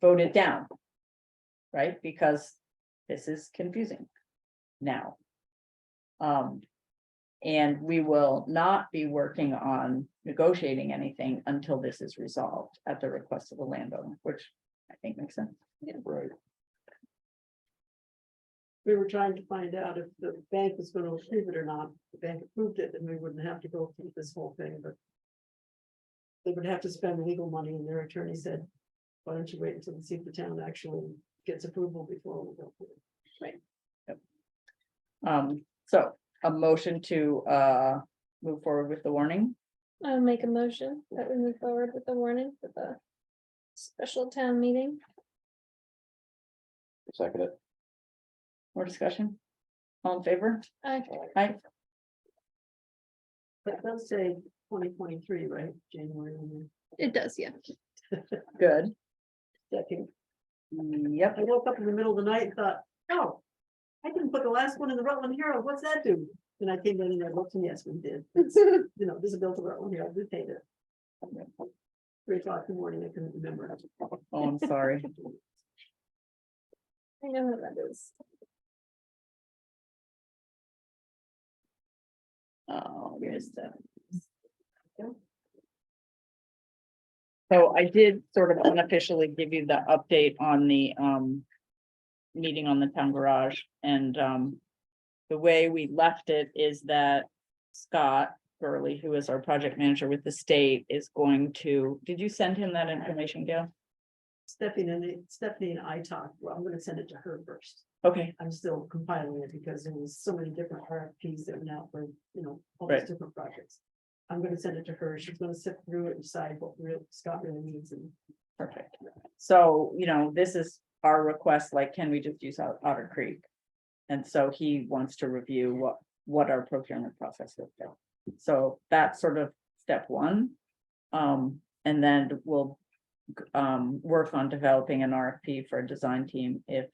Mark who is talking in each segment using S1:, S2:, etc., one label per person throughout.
S1: voted down. Right, because this is confusing now. Um, and we will not be working on negotiating anything until this is resolved at the request of the landowner, which I think makes sense.
S2: Right,
S3: We were trying to find out if the bank was gonna approve it or not. The bank approved it, and we wouldn't have to go through this whole thing, but. They would have to spend legal money, and their attorney said, why don't you wait until and see if the town actually gets approval before we go. through it?"
S1: Um, so a motion to uh move forward with the warning.
S4: I'll make a motion that we move forward with the warning for the special town meeting.
S2: second it.
S1: More discussion? All in favor?
S4: I,
S1: Aye.
S3: But let's say twenty twenty-three, right, January, and
S4: it does, yeah.
S1: Good.
S3: the second.
S1: Yep.
S3: I woke up in the middle of the night and thought, oh. I didn't put the last one in the Rutland Herald, what's that do? And I came in and I looked, and yes, we did. It's, You know, this is built to Rutland Herald, we paid it. Three o'clock in the morning, I couldn't remember.
S1: Oh, I'm sorry.
S4: I know how that is.
S1: Oh, where's the? So I did sort of unofficially give you the update on the um. Meeting on the town garage and um. The way we left it is that Scott Burley, who is our project manager with the state, is going to, did you send him that information, Gail?
S3: Stephanie and Stephanie and I talked, well, I'm gonna send it to her first.
S1: Okay,
S3: I'm still compiling it because there was so many different RFPs that went out for, you know, all these
S1: Right.
S3: different projects. I'm gonna send it to her. She's gonna sift through it and decide what real Scott really needs and.
S1: perfect. So, you know, this is our request, like, can we just use Ot- Otter Creek? And so he wants to review what, what our procurement process is. So that's sort of step one. Um, and then we'll um, work on developing an RFP for a design team if,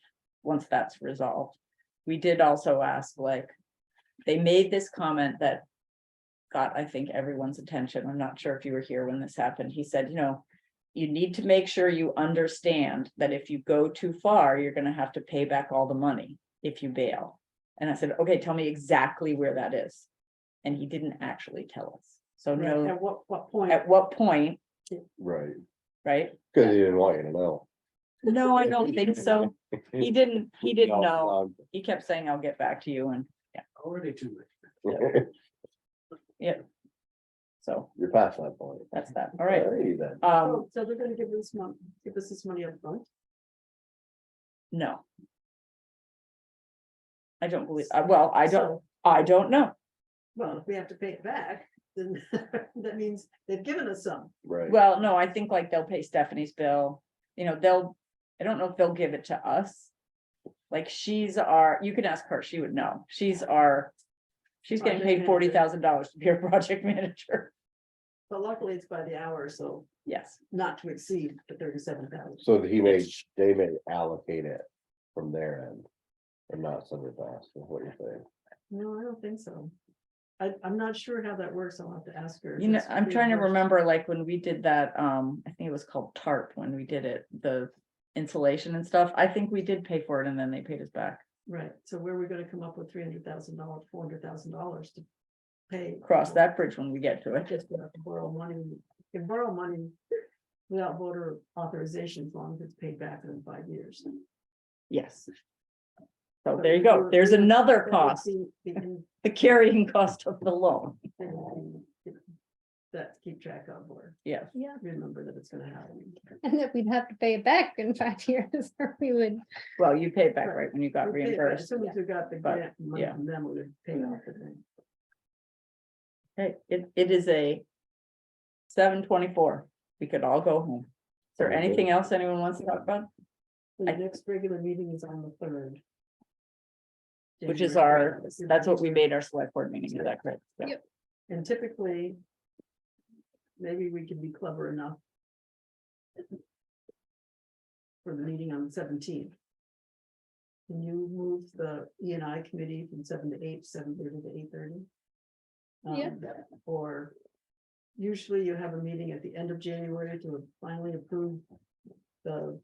S1: once that's resolved. We did also ask, like, they made this comment that got, I think, everyone's attention. I'm not sure if you were here when this happened. He said, you know, you need to make sure you understand that if you go too far, you're gonna have to pay back all the money if you bail. And I said, okay, tell me exactly where that is. And he didn't actually tell us. So Oh, no,
S3: At what, what point?
S1: at what point,
S2: Right,
S1: right?
S2: cause he didn't want you to know.
S1: No, I don't think so. He didn't, he didn't
S2: No,
S1: know.
S2: um,
S1: He kept saying, I'll get back to you and
S5: Already too late.
S1: so
S2: You're past that point.
S1: that's that. All right.
S2: Alrighty then.
S1: Um,
S3: Oh, So so they're gonna give this month, give us this money upfront.
S1: no. I don't believe, I- well, I don't, I don't know.
S3: Well, if we have to pay it back, then that means they've given us some.
S2: Right.
S1: Well, no, I think like they'll pay Stephanie's bill. You know, they'll, I don't know if they'll give it to us. Like she's our, you can ask her, she would know. She's our, she's getting paid
S3: Project
S1: forty
S3: manager.
S1: thousand dollars to be our project manager.
S3: But luckily it's by the hour, so
S1: Yes.
S3: not to exceed the thirty-seven thousand.
S2: So that he may, they may allocate it from their end. And not send it back, is what you're saying.
S3: No, I don't think so. I, I'm not sure how that works. I'll have to ask her. if
S1: You know,
S3: it's
S1: I'm trying to
S3: reimbursed.
S1: remember, like, when we did that, um, I think it was called tarp when we did it, the insulation and stuff, I think we did pay for it and then they paid us back.
S3: Right, so where are we gonna come up with three hundred thousand dollars, four hundred thousand dollars to pay?
S1: Cross that bridge when we get to
S3: I
S1: it.
S3: just gonna have to borrow money, you can borrow money without voter authorization as long as it's paid back in five years.
S1: Yes. So there you go, there's another
S3: That would
S1: cost,
S3: be- be in-
S1: the carrying cost of the loan,
S3: That to keep track of or
S1: yeah.
S4: Yeah,
S3: remember that it's gonna happen.
S4: and that we'd have to pay it back in five years, or we would,
S1: Well, you paid back
S3: Right.
S1: right when you got
S3: We pay it back As
S1: reimbursed,
S3: soon as we got the
S1: but,
S3: grant money
S1: yeah.
S3: from them, we would pay off the thing.
S1: Okay, it, it is a seven twenty-four, we could all go home. Is there
S2: Okay.
S1: anything else anyone wants to talk about?
S3: The
S1: I-
S3: next regular meeting is on the third.
S1: Which is
S3: January
S1: our,
S3: third.
S1: that's what we made our select board meeting, is that correct? Yeah.
S4: Yep.
S3: And typically. Maybe we can be clever enough. For the meeting on the seventeenth. Can you move the E and I committee from seven to eight, seven thirty to eight thirty? Um,
S4: Yeah.
S3: Or usually you have a meeting at the end of January to finally approve the